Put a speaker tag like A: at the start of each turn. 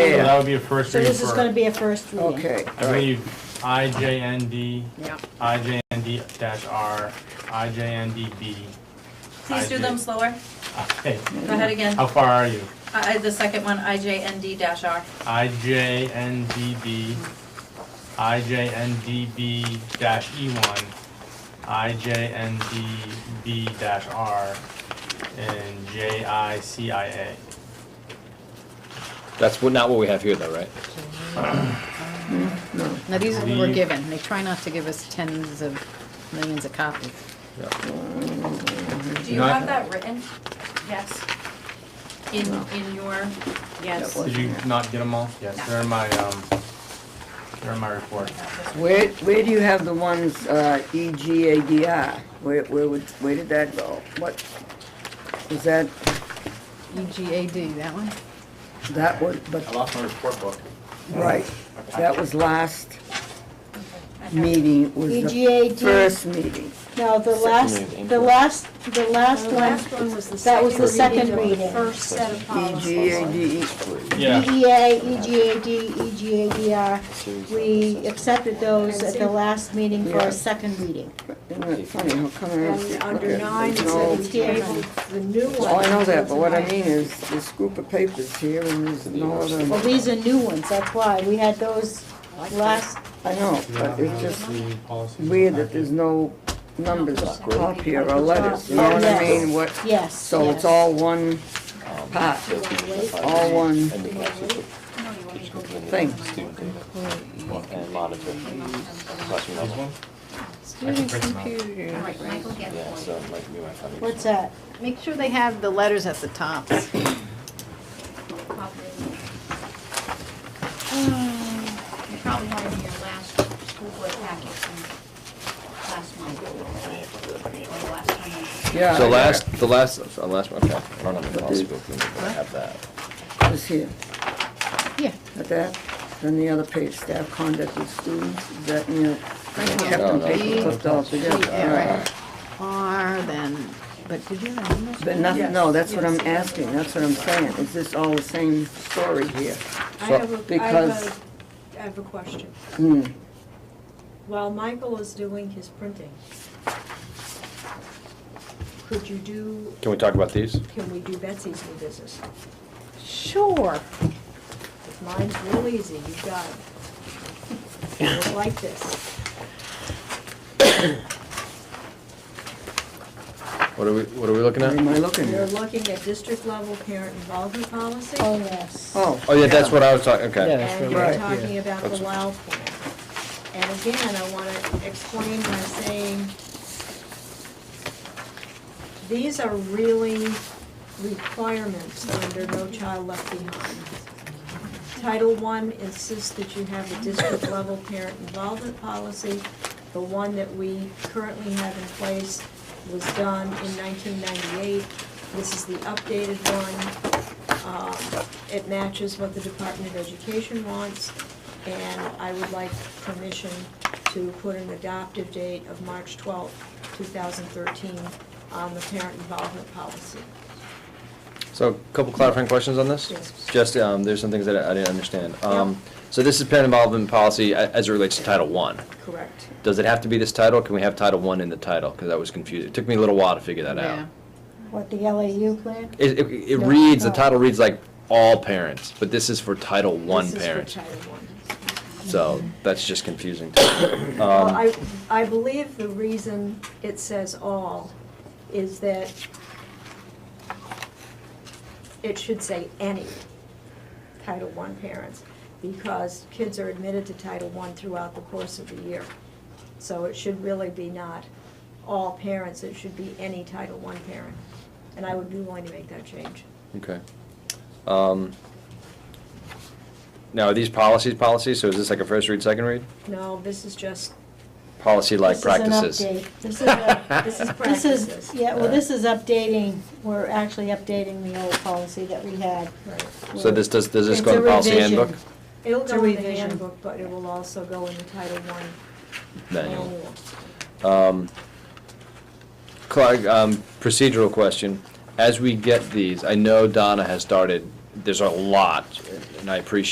A: would be a first
B: So
A: reading
B: this is gonna
A: for,
B: be a first reading.
C: Okay,
A: I
C: all right.
A: believe, IJND,
B: Yeah.
A: IJND dash R, IJNDB.
D: Please do them slower.
A: Okay,
D: Go ahead again.
A: how far are you?
D: I, I- the second one, IJND dash R.
A: IJNDB, IJNDB dash E E1, IJNDB dash R, and JICIA.
E: That's what- not what we have here, though, right?
F: Now, these are what
A: The-
F: we're given. They try not to give us tens of millions of copies.
D: Do you
A: Not-
D: have that written? Yes. In, in your, yes.
C: That
A: Did you not get them all? Yes,
D: No.
A: they're in my, um, they're in my report.
C: Where, where do you have the ones, uh, EGADR? Where, where would, where did that go? What, is that,
F: E EGAD, that one?
C: that was,
G: I
C: but,
G: lost my report book.
C: right, that was last
D: I have-
C: meeting, was
H: E
B: E
C: the
B: EGAD,
C: first meeting.
B: no, the last, the last, the last one,
H: was the
B: that was the second
H: reading of the
B: reading.
H: First set of
C: E
H: policies.
C: EGADE,
B: E
A: Yeah,
B: EDA, EGAD, EGADR, E we accepted those at the last meeting for
C: Yeah.
B: a second reading.
C: isn't it funny, how come I don't see?
H: And under
C: okay,
H: nine, it
C: there's no-
H: said he tabled the new one.
C: Oh, I know that, but what I mean is, this group of papers here, and there's no
B: Well,
C: other,
B: these are new ones, that's why, we had those last,
C: I know, but it's just
A: the policies in the
C: weird that
A: packet.
C: there's no numbers up here or letters, you know what I
B: Yes.
C: mean? What,
B: yes.
C: so it's
B: yes.
C: all one pot, all one
D: No, you want me to go get it?
C: thing.
E: And monitor.
A: These ones?
F: Student
A: print them out.
F: computer.
D: All right, Michael, get
E: Yeah,
D: it.
E: so like we went on.
B: What's that?
F: Make sure they have the letters at the top.
D: Copy. You probably had it in your last school board packet from last month. Or last time.
C: Yeah, I
E: So
C: got
E: last, the last, the last, okay, I don't have the policy book, but I have that.
C: it. It was here,
F: Yeah,
C: but that, then the other page, staff conduct with students, is that, you know,
F: Right
C: kept them
E: here.
C: paper clipped all together, all
F: Yeah,
C: right.
F: R then, but did you have a number?
C: But nothing, no, that's what I'm asking, that's what I'm saying, is this all the same story here?
H: I have a, I
C: because-
H: have a, I have a question.
C: Hmm,
H: While Michael is doing his printing, could you do,
E: Can we talk about these?
H: can we do Betsy's new business?
F: Sure.
H: Mine's real easy, you've got it. Just like this.
E: What are we, what are we looking
C: what am
E: at?
C: I looking
H: You're
C: at?
H: looking at district level parent involvement policy.
B: Oh, yes.
C: Oh.
E: Oh, yeah, that's what I was talking, okay.
H: And
C: right.
H: you're
C: Right.
H: talking about the
E: That's-
H: WOW plan. And again, I want to explain by saying, these are really requirements under No Child Left Behind. Title One insists that you have a district-level parent involvement policy. The one that we currently have in place was done in 1998. This is the updated one. Um, It matches what the Department of Education wants, and I would like permission to put an adoptive date of March 12, 2013 on the parent involvement policy.
E: So a couple clarifying questions on this?
H: Yes.
E: Just, um, there's some things that I I didn't understand. Um, so this is parent involvement policy a- as it relates to Title One.
H: Correct.
E: Does it have to be this title? Can we have Title One in the title? Because that was confusing. It took me a little while to figure that
F: Yeah.
E: out.
B: What, the LAU plan?
E: It, it, it
B: No,
E: reads, the
B: no.
E: title reads like all parents, but this is for Title One
H: This is for
E: parents.
H: Title One.
E: So that's just confusing. to me.
H: Well,
E: Um,
H: I, I believe the reason it says all is that it should say any Title I parents, because kids are admitted to Title I throughout the course of the year. So it should really be not all parents, it should be any Title I parent. And I would be willing to make that change.
E: Okay. Um, Now, are these policies, policies? So is this like a first read, second read?
H: No, this is just,
E: Policy like
B: This is an
E: practices?
B: update. This is a-
H: this is
B: This
H: practices.
B: is, yeah, well, this is updating, we're actually updating the old policy that we had.
E: So this, does, does this
B: It's
E: go
B: a
E: in the policy
B: revision.
E: handbook?
H: It'll
B: It's a
H: go in the
B: revision.
H: handbook, but it will also go in the Title I
E: Manual.
H: manual.
E: Um, Clark, um, procedural question. As we get these, I know Donna has started, there's a lot, and I appreciate